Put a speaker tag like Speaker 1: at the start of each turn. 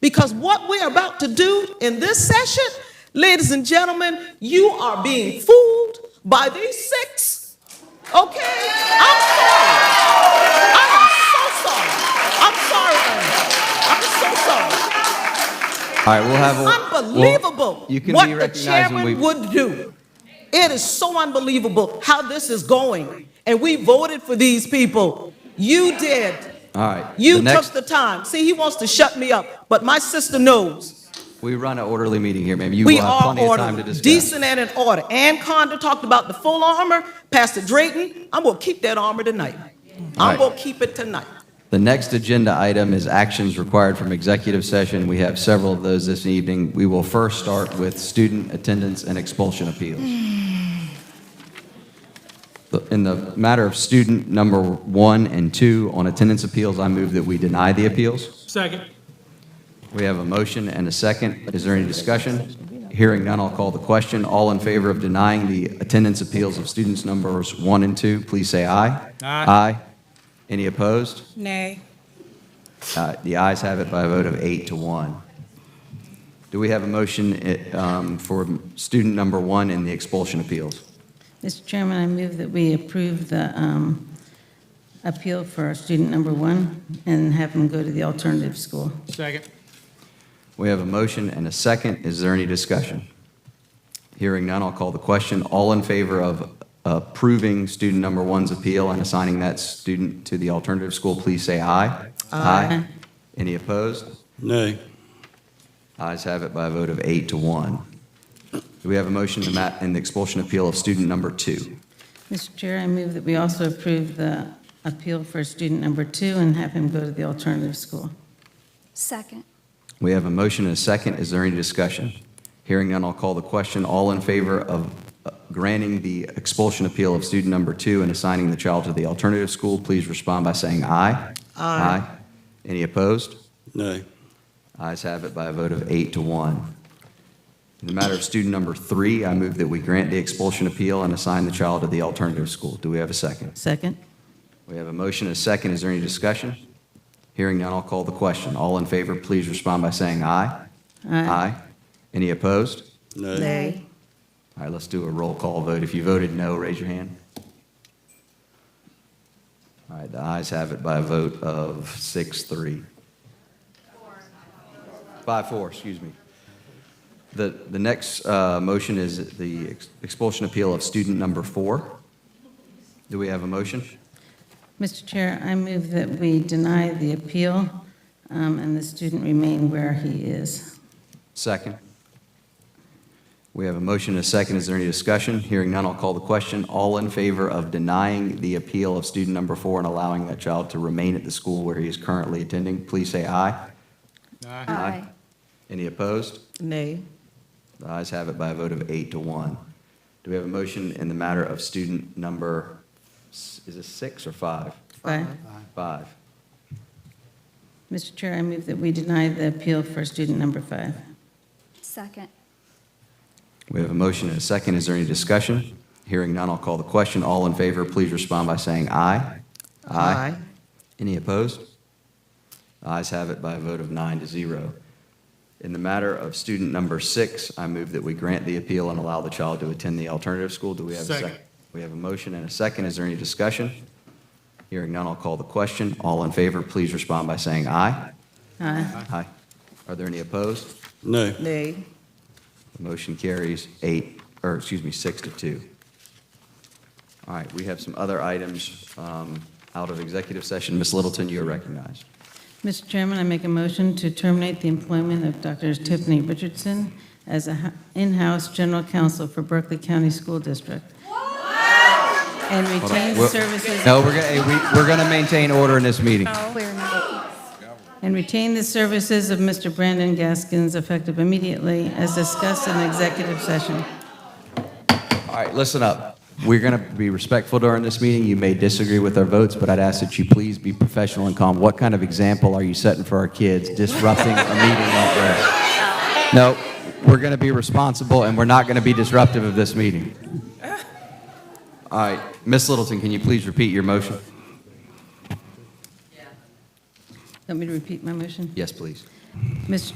Speaker 1: Because what we're about to do in this session, ladies and gentlemen, you are being fooled by these six. Okay? I'm sorry. I am so sorry. I'm sorry. Ernie. I'm so sorry.
Speaker 2: All right, we'll have.
Speaker 1: It's
Speaker 2: a- we'll-
Speaker 1: unbelievable
Speaker 2: you can
Speaker 1: what
Speaker 2: be
Speaker 1: the
Speaker 2: recognized
Speaker 1: chairman
Speaker 2: when we.
Speaker 1: would do. It is so unbelievable how this is going. And we voted for these people. You did.
Speaker 2: all right.
Speaker 1: You
Speaker 2: the next,
Speaker 1: took the time. See, he wants to shut me up, but my sister knows.
Speaker 2: we run an orderly meeting here, ma'am. You
Speaker 1: We
Speaker 2: will have
Speaker 1: are
Speaker 2: plenty of time to
Speaker 1: ordered,
Speaker 2: discuss.
Speaker 1: decent and in order. Ann Condon talked about the full armor. Pastor Drayton, I'm gonna keep that armor tonight. I'm
Speaker 2: Right.
Speaker 1: gonna keep it tonight.
Speaker 2: The next agenda item is actions required from executive session. We have several of those this evening. We will first start with student attendance and expulsion appeals. The- In the matter of student number one and two on attendance appeals, I move that we deny the appeals.
Speaker 3: Second.
Speaker 2: We have a motion and a second. Is there any discussion? Hearing none, I'll call the question. All in favor of denying the attendance appeals of students numbers one and two, please say aye.
Speaker 3: Aye.
Speaker 2: Aye. Any opposed?
Speaker 4: Nay.
Speaker 2: Uh, The ayes have it by a vote of eight to one. Do we have a motion eh, um, for student number one in the expulsion appeals?
Speaker 4: Mr. Chairman, I move that we approve the um, appeal for student number one and have him go to the alternative school.
Speaker 3: Second.
Speaker 2: We have a motion and a second. Is there any discussion? Hearing none, I'll call the question. All in favor of approving student number one's appeal and assigning that student to the alternative school, please say aye. Aye. Any opposed?
Speaker 5: Nay.
Speaker 2: Ayes have it by a vote of eight to one. Do we have a motion to ma- in the expulsion appeal of student number two?
Speaker 4: Mr. Chair, I move that we also approve the appeal for student number two and have him go to the alternative school.
Speaker 6: Second.
Speaker 2: We have a motion and a second. Is there any discussion? Hearing none, I'll call the question. All in favor of uh, granting the expulsion appeal of student number two and assigning the child to the alternative school, please respond by saying aye. Aye. Any opposed?
Speaker 5: Nay.
Speaker 2: Ayes have it by a vote of eight to one. In the matter of student number three, I move that we grant the expulsion appeal and assign the child to the alternative school. Do we have a second?
Speaker 4: Second?
Speaker 2: We have a motion and a second. Is there any discussion? Hearing none, I'll call the question. All in favor, please respond by saying aye. Aye. Any opposed?
Speaker 5: Nay.
Speaker 2: All right, let's do a roll call vote. If you voted no, raise your hand. All right, the ayes have it by a vote of six, three. Five, four, excuse me. The, the next uh, motion is the ex- expulsion appeal of student number four. Do we have a motion?
Speaker 4: Mr. Chair, I move that we deny the appeal um, and the student remain where he is.
Speaker 2: Second. We have a motion and a second. Is there any discussion? Hearing none, I'll call the question. All in favor of denying the appeal of student number four and allowing that child to remain at the school where he is currently attending, please say aye.
Speaker 6: Aye.
Speaker 2: Any opposed?
Speaker 1: Nay.
Speaker 2: The ayes have it by a vote of eight to one. Do we have a motion in the matter of student number, s- is this six or five?
Speaker 4: Five.
Speaker 2: Five.
Speaker 4: Mr. Chair, I move that we deny the appeal for student number five.
Speaker 6: Second.
Speaker 2: We have a motion and a second. Is there any discussion? Hearing none, I'll call the question. All in favor, please respond by saying aye. Any opposed? The ayes have it by a vote of nine to zero. In the matter of student number six, I move that we grant the appeal and allow the child to attend the alternative school. Do we have a second?
Speaker 3: Second.
Speaker 2: We have a motion and a second. Is there any discussion? Hearing none, I'll call the question. All in favor, please respond by saying aye.
Speaker 4: Aye.
Speaker 2: Aye. Are there any opposed?
Speaker 5: Nay.
Speaker 1: Nay.
Speaker 2: The motion carries eight, or excuse me, six to two. All right, we have some other items um, out of executive session. Ms. Littleton, you are recognized.
Speaker 4: Mr. Chairman, I make a motion to terminate the employment of Dr. Tiffany Richardson as a ho- in-house general counsel for Berkeley County School District. And
Speaker 2: Hold on.
Speaker 4: retain
Speaker 2: We'll-
Speaker 4: services.
Speaker 2: No, we're gonna, we- we're gonna maintain order in this meeting.
Speaker 6: Clear minute.
Speaker 4: And retain the services of Mr. Brandon Gaskins effective immediately as discussed in executive session.
Speaker 2: All right, listen up. We're gonna be respectful during this meeting. You may disagree with our votes, but I'd ask that you please be professional and calm. What kind of example are you setting for our kids disrupting a meeting like this? No, we're gonna be responsible and we're not gonna be disruptive of this meeting. All right, Ms. Littleton, can you please repeat your motion?
Speaker 4: Want me to repeat my motion?
Speaker 2: Yes, please.
Speaker 4: Mr.